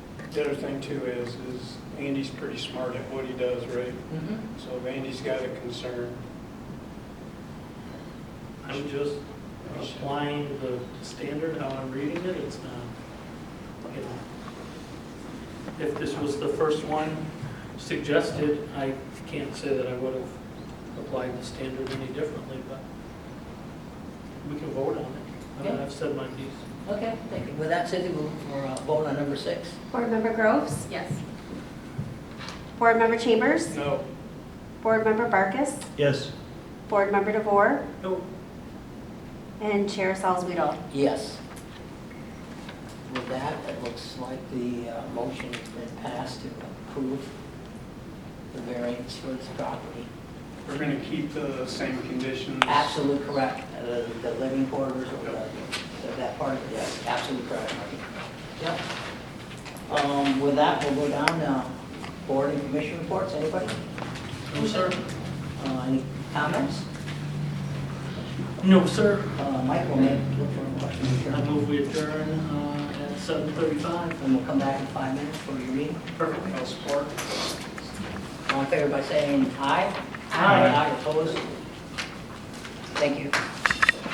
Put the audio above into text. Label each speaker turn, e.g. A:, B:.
A: The other thing too is, is Andy's pretty smart at what he does, right?
B: Mm-hmm.
A: So if Andy's got a concern,
C: I'm just applying the standard, how I'm reading it, it's not, you know. If this was the first one suggested, I can't say that I would have applied the standard any differently, but we can vote on it. I mean,
B: Yeah.
C: I've said my piece.
B: Okay, thank you. With that said, we'll, we'll uh, vote on number six.
D: Board Member Groves?
E: Yes.
D: Board Member Chambers?
A: no,
D: Board Member Barkus?
C: Yes.
D: Board Member DeVore?
C: No.
D: And Chair Salzweedl?
B: Yes. With that, it looks like the uh, motion has been passed to approve the variance for this property.
A: we're going to keep the same conditions.
B: Absolutely correct. The the living quarters or the- the- that part of it, yes, absolutely correct, Marty. Yep. Um, With that, we'll go down now. Board and commission reports, anybody?
C: No, sir.
B: Uh, Any comments?
C: No, sir.
B: Uh, Mike will make, look for a motion to
C: I
B: adjourn.
C: move we adjourn uh, at 7:35.
B: and we'll come back in five minutes for your meeting.
C: Perfect.
A: I'll support.
B: All in favor by saying aye?
C: Aye.
B: Aye, opposed? Thank you.